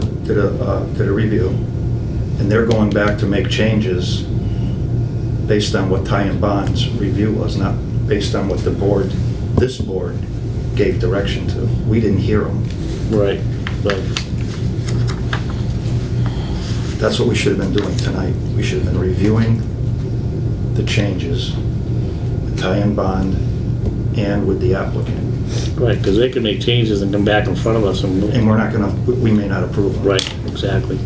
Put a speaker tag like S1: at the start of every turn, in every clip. S1: did a, uh, did a review, and they're going back to make changes based on what Ty and Bond's review was, not based on what the board, this board gave direction to. We didn't hear them.
S2: Right, right.
S1: That's what we should have been doing tonight. We should have been reviewing the changes with Ty and Bond and with the applicant.
S2: Right, because they can make changes and come back in front of us
S1: And
S2: and,
S1: we're not gonna, we- we may not approve them.
S2: right, exactly.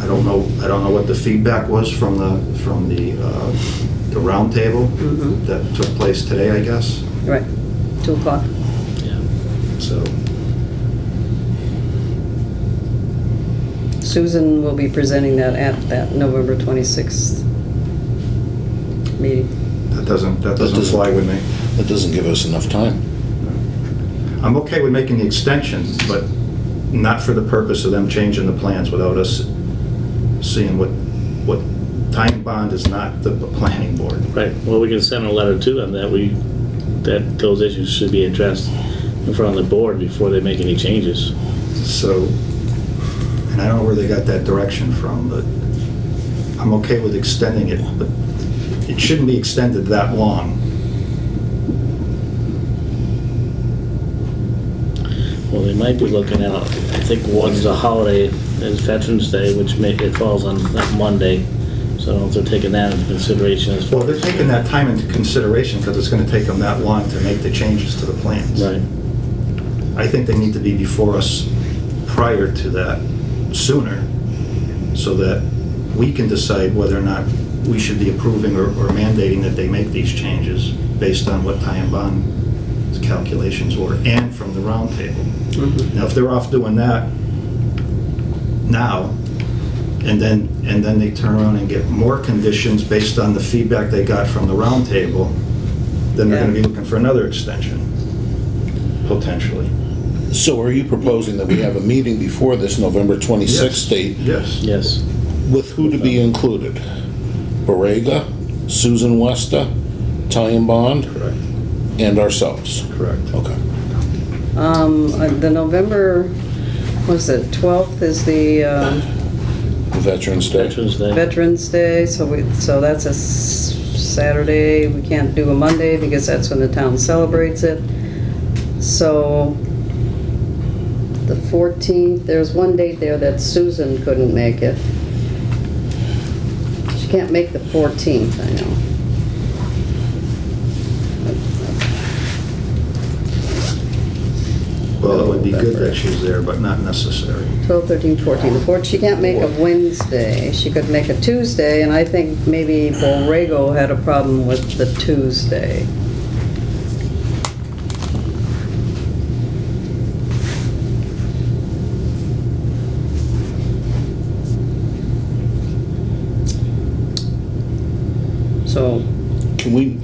S1: I don't know, I don't know what the feedback was from the, from the, uh, the roundtable
S3: Mhm.
S1: that took place today, I guess,
S3: Right, 2 o'clock.
S2: Yeah.
S1: so.
S3: Susan will be presenting that at that November 26th meeting.
S1: That doesn't, that doesn't
S4: doesn't-
S1: fly with me.
S4: That doesn't give us enough time.
S1: I'm okay with making the extension, but not for the purpose of them changing the plans without us seeing what, what, time bond is not the the planning board.
S2: Right, well, we can send a letter to them that we, that those issues should be addressed in front of the board before they make any changes.
S1: So, and I don't know where they got that direction from, but I'm okay with extending it, but it shouldn't be extended that long.
S2: Well, they might be looking out, I think one's a holiday, is Veterans Day, which may, it falls on that Monday. So I don't know if they're taking that into consideration as far
S1: Well,
S2: as.
S1: they're taking that time into consideration because it's going to take them that long to make the changes to the plans.
S2: Right,
S1: I think they need to be before us prior to that sooner so that we can decide whether or not we should be approving or or mandating that they make these changes based on what Ty and Bond's calculations were and from the roundtable. Now, if they're off doing that now, and then, and then they turn around and get more conditions based on the feedback they got from the roundtable, then they're gonna be
S3: Yeah.
S1: looking for another extension, potentially.
S4: So are you proposing that we have a meeting before this November 26th date
S1: Yes.
S2: yes.
S4: with who to be included? Borrega, Susan Westa, Ty and Bond,
S1: Correct,
S4: and ourselves?
S1: correct.
S4: Okay.
S3: Um, uh, The November, what is it, 12th is the um,
S4: Veterans Day?
S2: Veterans Day,
S3: Veterans Day, so we, so that's a s- Saturday. We can't do a Monday because that's when the town celebrates it. So the 14th, there's one date there that Susan couldn't make it. She can't make the 14th, I know.
S1: Well, it would be good that she's there, but not necessary.
S3: 12, 13, 14. The 14, she can't make a Wednesday. She could make a Tuesday, and I think maybe Borrego had a problem with the Tuesday. So,
S4: Can we,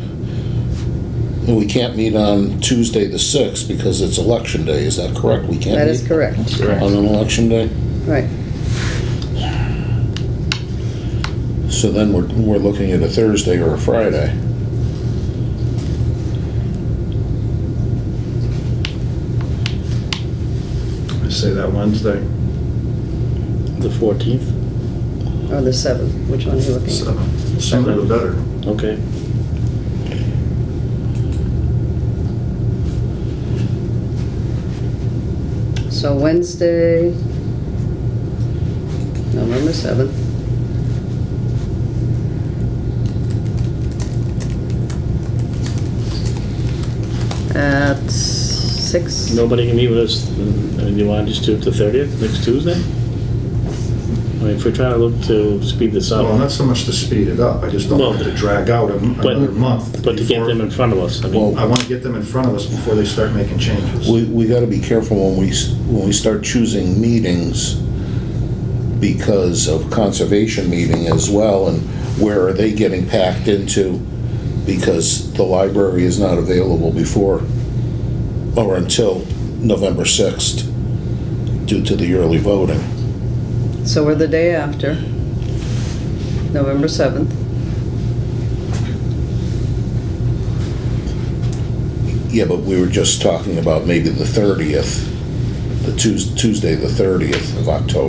S4: well, we can't meet on Tuesday the 6th because it's election day, is that correct? We can't
S3: that is
S4: meet
S3: correct,
S4: On an election day?
S3: right.
S4: So then we're, we're looking at a Thursday or a Friday.
S1: I say that Wednesday,
S2: the 14th,
S3: Or Oh, the 7th, which one are you looking
S1: so
S3: at?
S1: sooner the better.
S2: okay.
S3: So Wednesday, November 7th. At 6?
S2: Nobody can meet with us, and you want to just do it the 30th, next Tuesday? I mean, if we're trying to look to speed this
S1: Well, not
S2: up,
S1: so much to speed it up, I just don't want it to drag out a- another month.
S2: but to get
S1: before-
S2: them in front of us, I mean,
S4: Well-
S1: I want to get them in front of us before they start making changes.
S4: We, we gotta be careful when we, s- when we start choosing meetings because of conservation meeting as well, and where are they getting packed into? Because the library is not available before or until November 6th due to the early voting.
S3: So we're the day after, November 7th.
S4: Yeah, but we were just talking about maybe the 30th, the Tues- Tuesday, the 30th of October.